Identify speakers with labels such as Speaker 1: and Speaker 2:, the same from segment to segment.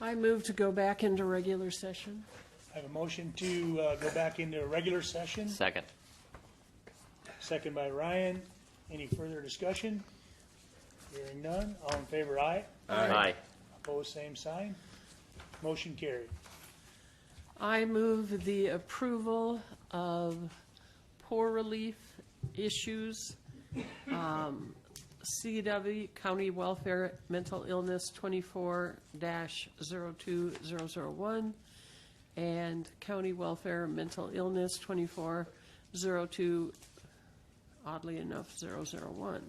Speaker 1: I move to go back into regular session.
Speaker 2: I have a motion to uh, go back into a regular session,
Speaker 3: Second.
Speaker 2: second by Ryan. Any further discussion? Hearing none, all in favor, aye.
Speaker 3: Aye.
Speaker 2: Opposed, same sign. Motion carried.
Speaker 1: I move the approval of poor relief issues, um, CW County Welfare Mental Illness twenty-four 2001 and County Welfare Mental Illness twenty-four zero two, oddly enough, zero zero one.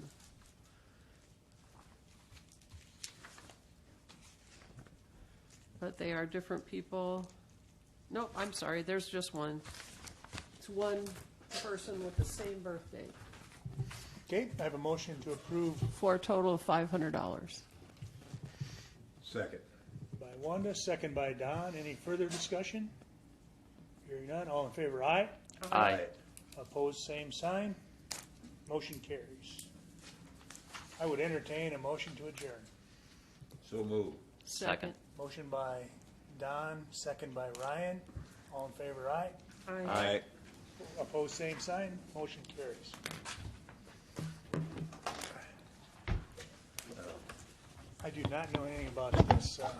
Speaker 1: But they are different people. No, I'm sorry, there's just one. It's one person with the same birthday,
Speaker 2: Okay, I have a motion to approve
Speaker 1: for a total of five hundred dollars.
Speaker 4: Second.
Speaker 2: by Wanda, second by Don. Any further discussion? Hearing none, all in favor, aye.
Speaker 3: Aye.
Speaker 2: Opposed, same sign. Motion carries. I would entertain a motion to adjourn.
Speaker 4: So move.
Speaker 3: Second.
Speaker 2: Motion by Don, second by Ryan. All in favor, aye.
Speaker 1: Aye.
Speaker 4: Aye.
Speaker 2: Opposed, same sign. Motion carries. I do not know anything about this, uh,